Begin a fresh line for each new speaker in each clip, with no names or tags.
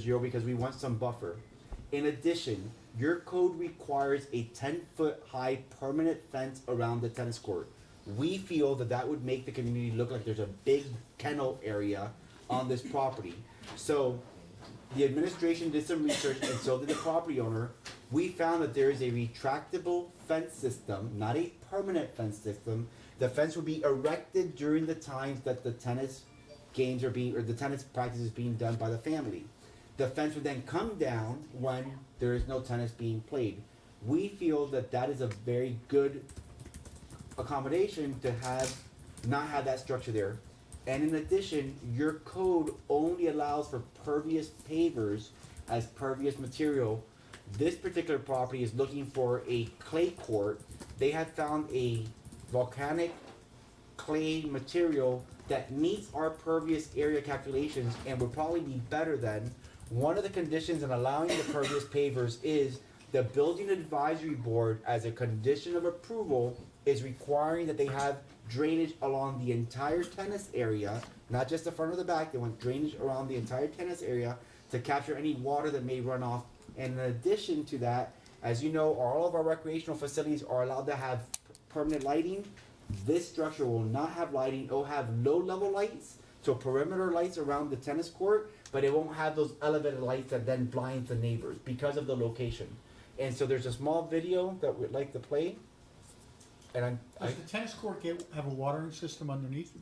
zero because we want some buffer. In addition, your code requires a ten foot high permanent fence around the tennis court. We feel that that would make the community look like there's a big kennel area on this property. So the administration did some research and so did the property owner. We found that there is a retractable fence system, not a permanent fence system. The fence will be erected during the times that the tennis games are being, or the tennis practice is being done by the family. The fence would then come down when there is no tennis being played. We feel that that is a very good accommodation to have not have that structure there. And in addition, your code only allows for pervious pavers as pervious material. This particular property is looking for a clay court. They had found a volcanic clay material that meets our pervious area calculations and would probably be better than. One of the conditions in allowing the pervious pavers is the building advisory board, as a condition of approval, is requiring that they have drainage along the entire tennis area, not just the front or the back, they want drainage around the entire tennis area to capture any water that may run off. And in addition to that, as you know, all of our recreational facilities are allowed to have permanent lighting. This structure will not have lighting. It'll have low level lights, so perimeter lights around the tennis court, but it won't have those elevated lights that then blinds the neighbors because of the location. And so there's a small video that we'd like to play. And I'm, I,
Does the tennis court get, have a watering system underneath?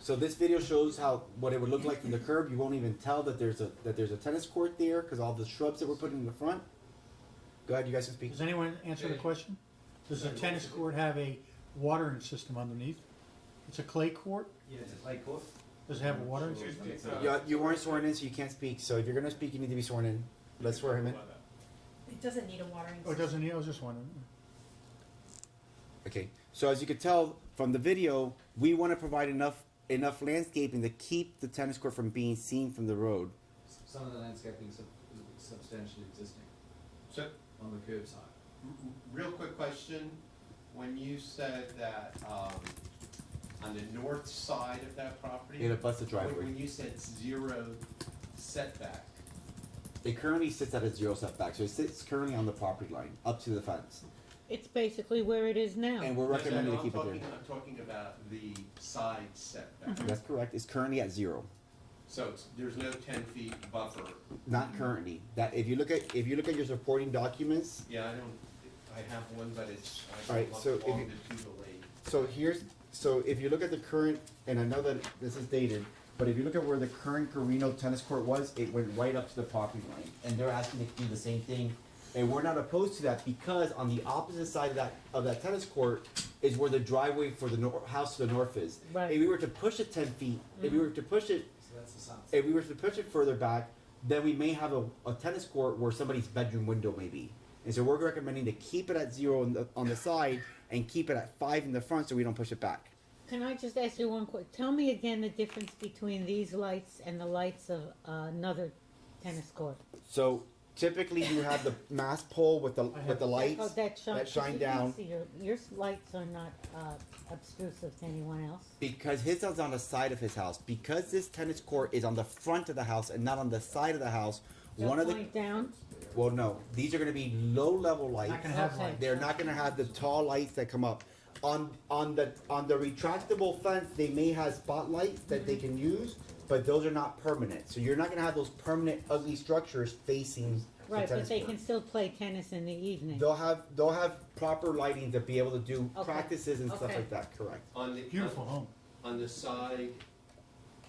so this video shows how what it would look like from the curb. You won't even tell that there's a that there's a tennis court there because all the shrubs that were put in the front. Go ahead, you guys can speak.
Does anyone answer the question? Does the tennis court have a watering system underneath? It's a clay court?
Yeah, it's a clay court.
Does it have a watering
Sure.
system?
uh,
You, you weren't sworn in, so you can't speak. So if you're gonna speak, you need to be sworn in. Let's swear him in.
It doesn't need a watering.
Oh, it doesn't, need- I was just wondering.
Okay, so as you could tell from the video, we want to provide enough enough landscaping to keep the tennis court from being seen from the road.
S- Some of the landscaping sub- is substantially existing
So, r-
on the curb side.
r- real quick question, when you said that, um, on the north side of that property?
It'll bust the
when-
driveway.
When you said zero setback,
It currently sits at a zero setback, so it sits currently on the property line up to the fence,
It's basically where it is
and
now.
we're
No, no,
recommending
no,
to keep
I'm
it
talking- I'm talking about the side setback,
there. That's correct. It's currently at zero.
so it's, there's no ten feet buffer,
Not currently. That if you look at if you look at your supporting documents,
yeah, I don't, I have one, but it's,
All
I
right,
look
so if
along
you-
the Jubilee.
so here's so if you look at the current and I know that this is dated, but if you look at where the current Carino tennis court was, it went right up to the property line. And they're asking to do the same thing. And we're not opposed to that because on the opposite side of that of that tennis court is where the driveway for the nor- house to the north is.
Right.
If we were to push it ten feet, if we were to push it
So that's the south. side.
if we were to push it further back, then we may have a, a tennis court where somebody's bedroom window may be. And so we're recommending to keep it at zero on the, on the side and keep it at five in the front so we don't push it back.
Can I just ask you one quick, tell me again the difference between these lights and the lights of uh, another tennis court?
So typically you have the mass pole with the, with the
Oh,
lights.
that shine.
that shine
you can
down.
see Your, your lights are not, uh, obtrusive to anyone else.
Because his house is on the side of his house, because this tennis court is on the front of the house and not on the side of the house,
They'll
one of the,
Point down,
well, no, these are gonna be low level lights.
Not gonna have
Okay.
light.
They're not gonna have the tall lights that come up. On, on the, on the retractable fence, they may have spotlights that they can use, but those are not permanent. So you're not gonna have those permanent ugly structures facing the
right, but
tennis
they
court.
can still play tennis in the evening.
They'll have, they'll have proper lighting to be able to do
Okay.
practices and stuff
Okay.
like that, correct?
On the.
Beautiful home.
on the side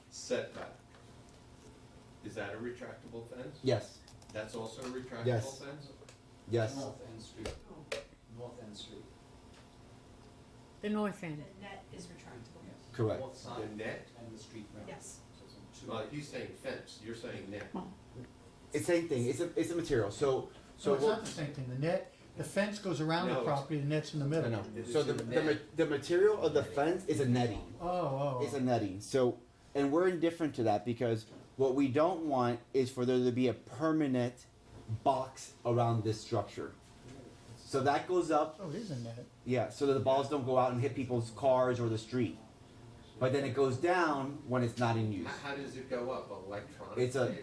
setback, is that a retractable fence?
Yes,
That's also a retractable
Yes.
fence?
yes.
North End Street. North End Street,
The north end.
The net is retractable.
yes.
Correct.
North side
The net,
and the street round.
Yes.
So it's on two
well,
ends.
he's saying fence, you're saying net.
It's same thing, it's a, it's a material, so, so.
So it's
we'll-
not the same thing, the net, the fence goes around the
No, it's-
property, the net's in the
No,
middle.
no.
It's
So
a
the, the,
net.
ma- the material of the fence is a netting.
Oh, oh,
It's a
oh,
netting. So, and we're indifferent to that because what we don't want is for there to be a permanent box around this structure. So that goes up,
oh, it is a net.
yeah, so that the balls don't go out and hit people's cars or the street. But then it goes down when it's not in use.
How, how does it go up, electronically?
It's a,